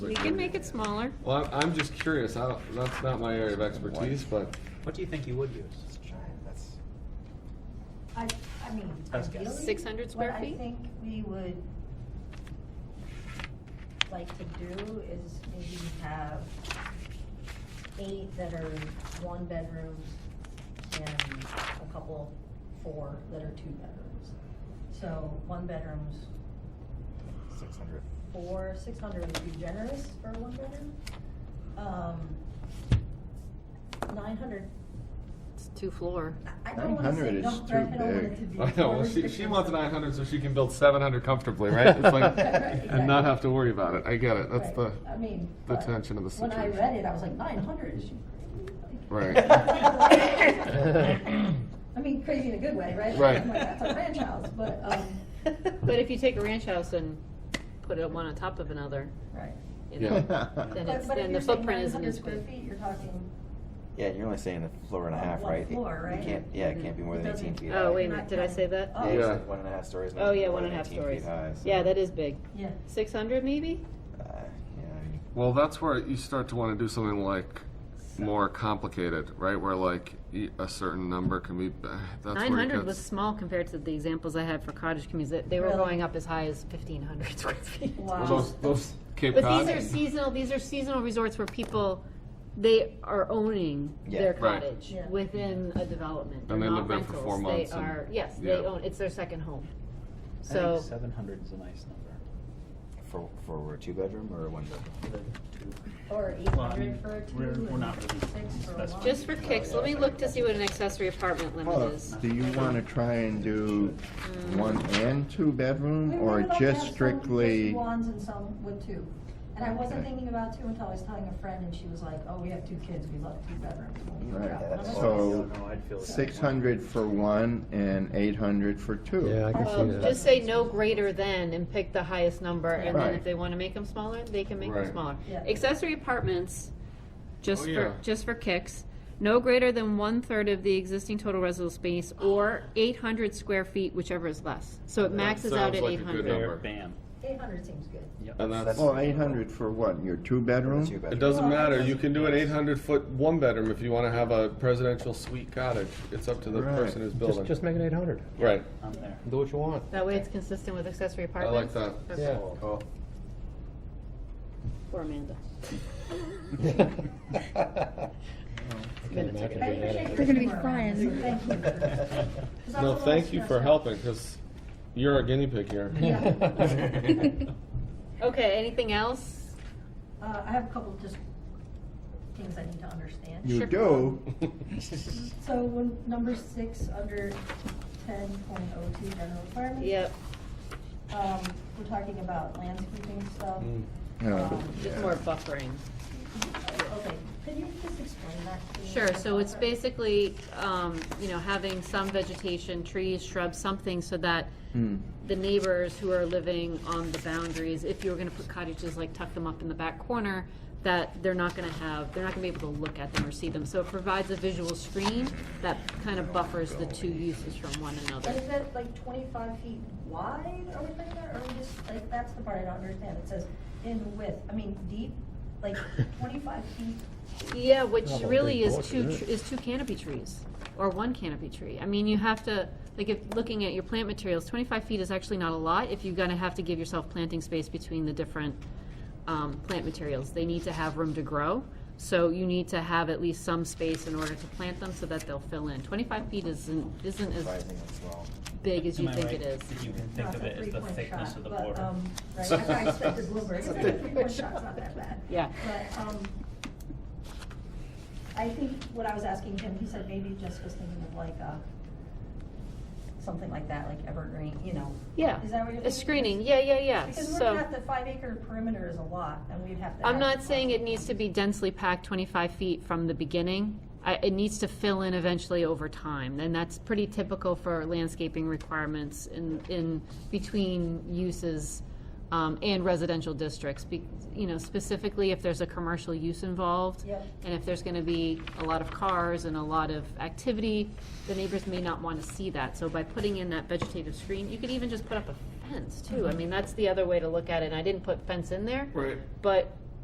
We can make it smaller. Well, I'm, I'm just curious. I, don't- that's not my area of expertise, but What do you think you would use? That's- I, I mean, Best guess. ideally, 600 square feet? What I think we would like to do is maybe have eight that are one bedrooms and a couple, four that are two bedrooms. So one bedrooms, 600. four, six hundred would be generous for a one bedroom. Um, Nine hundred, It's two floor. I don't wanna say 900 is no, right? I too big. don't want it to be. I know well, she, she wants 900 so she can build 700 comfortably, right? It's like, and not have to worry about it. I get it. That's Right. the I mean, the but tension of the When I situation. read it, I was like, nine hundred is Right. crazy. I mean, crazy in a good way, right? Right. I'm like, that's a ranch house, but um, But if you take a ranch house and put it one on top of another, right. you Yeah. know, But- then it's, but if then the you're saying footprint isn't 900 as square big. feet, You're talking. Yeah, you're only saying a floor and a Well, half, one right? It- floor, right? You can't, yeah, it can't be more It than doesn't- eighteen feet high. Oh, wait a Not minute, did I say that? Oh. Yeah, it's Yeah. like one and a half stories. Oh, yeah, more one than and a half 18 feet stories. high, so- Yeah, that is big. Yeah. Six hundred maybe? Uh, yeah, I mean, Well, that's where you start to want to do something like more complicated, right? Where like y- a certain number can be. eh, That's Nine where it hundred gets, was small compared to the examples I had for cottage communities. They- They were Really? going up as high as fifteen hundred square feet. Well, Wow. those, those Cape But Cod. these are seasonal, these are seasonal resorts where people, they are owning their Yeah. Right. cottage Yeah. within a development. And They're they live not there for four rentals. months They and- are, yes, they yeah. own, it's their second home. I So, think seven hundred is a nice number. for, for a two-bedroom or a one-bedroom? Or eight Well, I mean, hundred for a two. we're- we're and not really Six for a specifying. one. just for kicks, let me look to see what an accessory apartment limit is. Do you want to try and do Mm. one and two bedroom, We or would like to have just some strictly? With ones and some with two. And I wasn't thinking about two until I was telling a friend and she was like, oh, we have two kids, we love two bedrooms. We'll figure Right, out another so- space. No, I'd feel. Six hundred for one and eight hundred for two. Yeah, I can Um, Well, see that. just say no greater than and pick the highest number, and then if Right. they wanna make them smaller, they can make them Right. smaller. Yeah. Accessory apartments, just Oh, for, yeah. just for kicks, no greater than one-third of the existing total residential space, or eight hundred square feet, whichever is less. So it That maxes out sounds at like a eight good hundred. number. There, bam. Eight hundred seems good. and that's, Well, eight hundred for what, your two For a bedroom? two-bedroom. It doesn't matter. You can do an 800 foot one bedroom if you want to have a presidential suite cottage. It's up to the Right. person who's building. Just, just make it eight hundred. right. I'm there. Do what you want. That way it's consistent with accessory I like apartments? that. Okay. Yeah. Cool. For Amanda. You're gonna be frying. Thank you. for- 'cause I was a No, little thank you for stressed out. helping because you're a guinea pig here. Okay, anything else? Uh, I have a couple just things I need to understand. You do? So when, number six, under ten point oh two, general requirements. Yep, Um, we're talking about landscaping stuff. Um, Mm. No. just more buffering. Okay, could you just explain that to me? Sure, so it's Okay. basically, um, you know, having some vegetation, trees, shrubs, something so that Hmm. the neighbors who are living on the boundaries, if you were gonna put cottages, like tuck them up in the back corner, that they're not gonna have, they're not gonna be able to look at them or see them. So it provides a visual screen that kind of buffers the two uses from one another. And is that like twenty-five feet wide, are we talking about, or are we just, like, that's the part I don't understand, it says in width, I mean, deep, like twenty-five feet, Yeah, which Not a really big is bulk, two, is tr- it? is two canopy trees, or one canopy tree. I mean, you have to, like, if, looking at your plant materials, twenty-five feet is actually not a lot if you're gonna have to give yourself planting space between the different, um, plant materials. They need to have room to grow, so you need to have at least some space in order to plant them so that they'll fill in. Twenty-five feet isn't, isn't as Surprising as well. big as Am you I think right? it is. You can think that's of a it as the three-point thickness shot, of the but, border. um, Right, I I expected Bloomberg, it's like a three-point shot's not that bad. Yeah. But, um, I think what I was asking him, he said maybe just was thinking of like a, something like that, like evergreen, you know. Yeah. Is that what you're thinking? A screening, yeah, yeah, yeah, so. Because we're not, the five acre perimeter is a lot, and we'd have to. I'm have- not saying it needs to be densely packed twenty-five feet from the beginning. I, it needs to fill in eventually over time, and that's pretty typical for landscaping requirements in, in between uses, um, and residential districts. Be, you know, specifically if there's a commercial use involved. Yep. And if there's gonna be a lot of cars and a lot of activity, the neighbors may not wanna see that. So by putting in that vegetative screen, you could even just put up a fence too. I mean, that's the other way to look at it, and I didn't put fence in there. Right. But